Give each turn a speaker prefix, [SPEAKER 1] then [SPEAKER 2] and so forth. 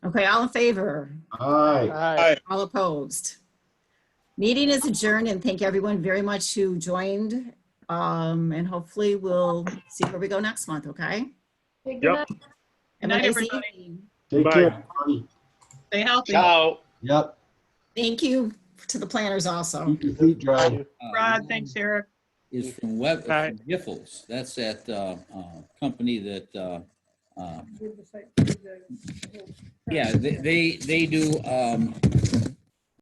[SPEAKER 1] Okay, all in favor?
[SPEAKER 2] Aye.
[SPEAKER 3] Aye.
[SPEAKER 1] All opposed? Meeting is adjourned and thank everyone very much who joined. Um, and hopefully we'll see where we go next month, okay?
[SPEAKER 4] Good
[SPEAKER 3] Yep.
[SPEAKER 4] night.
[SPEAKER 1] Have a
[SPEAKER 5] Night,
[SPEAKER 1] nice
[SPEAKER 5] everybody.
[SPEAKER 1] evening.
[SPEAKER 2] Take
[SPEAKER 3] Bye.
[SPEAKER 2] care, everybody.
[SPEAKER 5] Stay healthy.
[SPEAKER 3] Ciao.
[SPEAKER 2] Yep,
[SPEAKER 1] Thank you to the planners also.
[SPEAKER 2] keep your feet dry.
[SPEAKER 5] Rod, thanks, Eric.
[SPEAKER 6] is from Web,
[SPEAKER 3] All right.
[SPEAKER 6] from Giffords. That's that uh, uh, company that, uh, uh, yeah, they, they they do um,